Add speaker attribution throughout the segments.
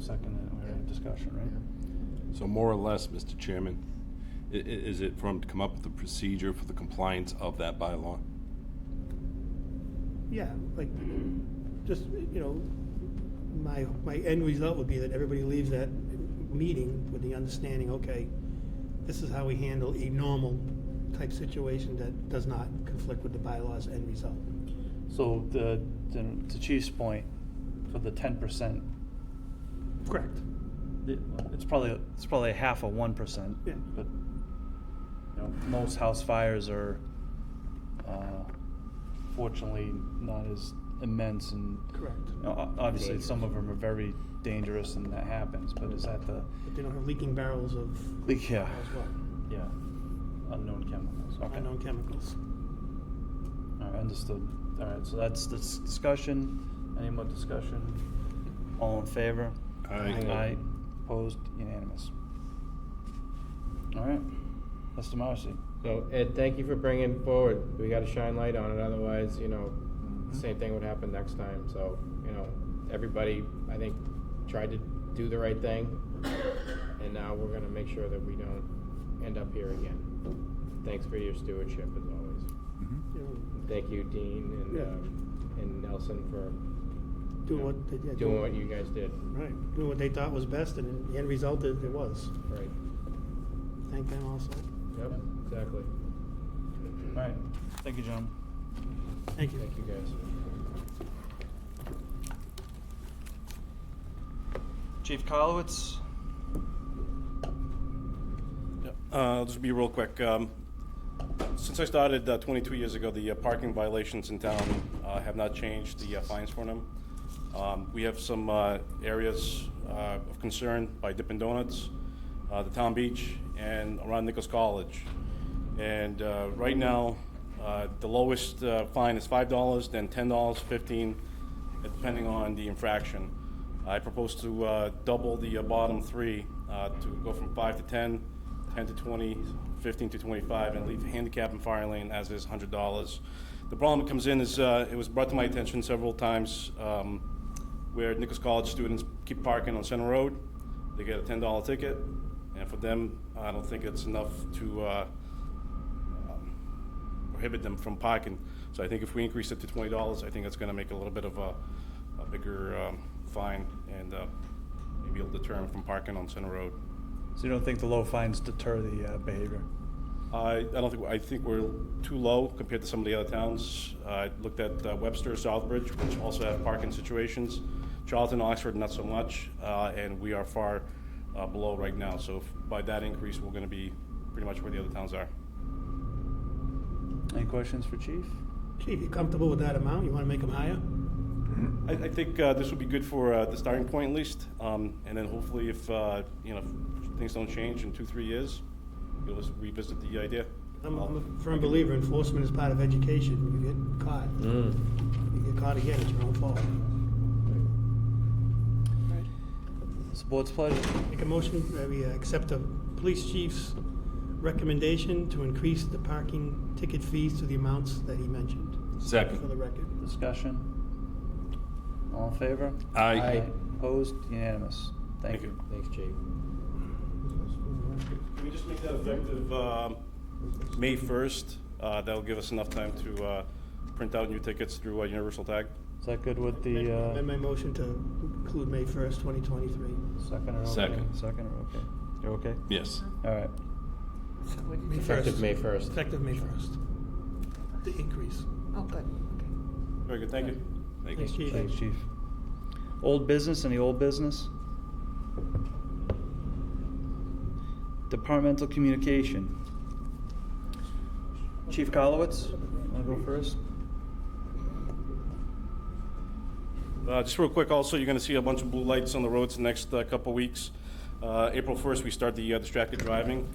Speaker 1: second it, we already had discussion, right?
Speaker 2: So more or less, Mr. Chairman, i- i- is it for him to come up with a procedure for the compliance of that bylaw?
Speaker 3: Yeah, like, just, you know, my, my end result would be that everybody leaves that meeting with the understanding, okay, this is how we handle a normal type situation that does not conflict with the bylaws end result.
Speaker 1: So the, then to Chief's point, for the ten percent,
Speaker 3: Correct.
Speaker 1: it's probably, it's probably a half of one percent.
Speaker 3: Yeah.
Speaker 1: But, you know, most house fires are, uh, fortunately not as immense and,
Speaker 3: Correct.
Speaker 1: you know, o- obviously, some of them are very dangerous and that happens, but is that the,
Speaker 3: But they don't have leaking barrels of,
Speaker 1: yeah,
Speaker 3: as well,
Speaker 1: yeah, unknown chemicals, okay.
Speaker 3: unknown chemicals.
Speaker 1: All right, understood. All right, so that's the s- discussion. Any more discussion? All in favor?
Speaker 2: Aye.
Speaker 1: Aye. Opposed? Unanimous. All right, that's democracy.
Speaker 4: So Ed, thank you for bringing forward, we gotta shine light on it, otherwise, you know,
Speaker 3: Mm-hmm.
Speaker 4: the same thing would happen next time, so, you know, everybody, I think, tried to do the right thing, and now we're gonna make sure that we don't end up here again. Thanks for your stewardship as always.
Speaker 1: Mm-hmm.
Speaker 3: You know,
Speaker 4: Thank you, Dean and,
Speaker 3: Yeah.
Speaker 4: um, and Nelson for
Speaker 3: Do what, they- yeah, do
Speaker 4: doing what you guys did,
Speaker 3: Right, do what they thought was best, and in the end result, it it was.
Speaker 4: right?
Speaker 3: Thank them also.
Speaker 4: Yep, exactly.
Speaker 1: All right, thank you, gentlemen.
Speaker 3: Thank you.
Speaker 4: Thank you, guys.
Speaker 1: Chief Kalowitz?
Speaker 5: Uh, I'll just be real quick. Um, Since I started uh, 22 years ago, the uh, parking violations in town uh, have not changed, the uh, fines for them. Um, We have some uh, areas uh, of concern by Dippin' Donuts, uh, the town beach, and around Nichols College. And uh, right now, uh, the lowest uh, fine is $5, then $10, 15 depending on the infraction. I propose to uh, double the uh, bottom three, uh, to go from 5 to 10, 10 to 20, 15 to 25, and leave handicap and fire lane as is $100. The problem that comes in is, uh, it was brought to my attention several times, um, where Nichols College students keep parking on Center Road. They get a $10 ticket, and for them, I don't think it's enough to, uh, prohibit them from parking. So I think if we increase it to twenty dollars, I think that's gonna make a little bit of a, a bigger, um, fine, and, uh, maybe it'll deter them from parking on Center Road.
Speaker 1: So you don't think the low fines deter the uh, behavior?
Speaker 5: I, I don't think, I think we're too low compared to some of the other towns. I looked at uh, Webster, Southbridge, which also have parking situations. Charlton, Oxford, not so much, uh, and we are far uh, below right now. So if- by that increase, we're gonna be pretty much where the other towns are.
Speaker 1: Any questions for Chief?
Speaker 3: Chief, you comfortable with that amount? You want to make them higher?
Speaker 5: I, I think uh, this will be good for uh, the starting point at least, um, and then hopefully if, uh, you know, if things don't change in two, three years, you'll just revisit the idea.
Speaker 3: I'm, I'm a firm believer enforcement is part of education. You get caught,
Speaker 4: Mm.
Speaker 3: you get caught again, it's your own fault.
Speaker 1: It's the board's pleasure.
Speaker 3: Make a motion that we uh, accept the police chief's recommendation to increase the parking ticket fees to the amounts that he mentioned, for
Speaker 2: Second.
Speaker 3: the record.
Speaker 1: Discussion? All in favor?
Speaker 4: Aye.
Speaker 1: Opposed? Unanimous. Thank
Speaker 5: Thank
Speaker 1: you.
Speaker 4: Thanks, Chief.
Speaker 5: Can we just make that effective um, May 1st? Uh, That'll give us enough time to uh, print out new tickets through uh, Universal Tag.
Speaker 1: Is that good with the, uh?
Speaker 3: Amend my motion to include May first, twenty twenty-three.
Speaker 1: Second or okay?
Speaker 2: Second.
Speaker 1: Second or okay? You're okay?
Speaker 2: Yes.
Speaker 1: All right.
Speaker 3: May
Speaker 4: Effective May first.
Speaker 3: Effective May first. The increase.
Speaker 6: Oh, good, okay.
Speaker 5: Very good, thank you.
Speaker 2: Thank
Speaker 3: Thanks,
Speaker 2: you.
Speaker 3: Chief.
Speaker 1: Thanks, Chief. Old business, any old business? Departmental communication. Chief Kolowitz, wanna go first?
Speaker 5: Uh, Just real quick, also, you're going to see a bunch of blue lights on the roads the next uh, couple weeks. Uh, April 1st, we start the uh, distracted driving.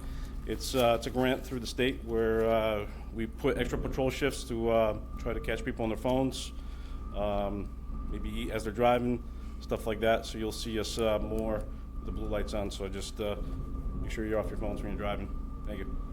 Speaker 5: It's, uh, it's a grant through the state where uh, we put extra patrol shifts to uh, try to catch people on their phones, um, maybe as they're driving, stuff like that. So you'll see us uh, more, with the blue lights on, so just uh, make sure you're off your phones when you're driving. Thank you.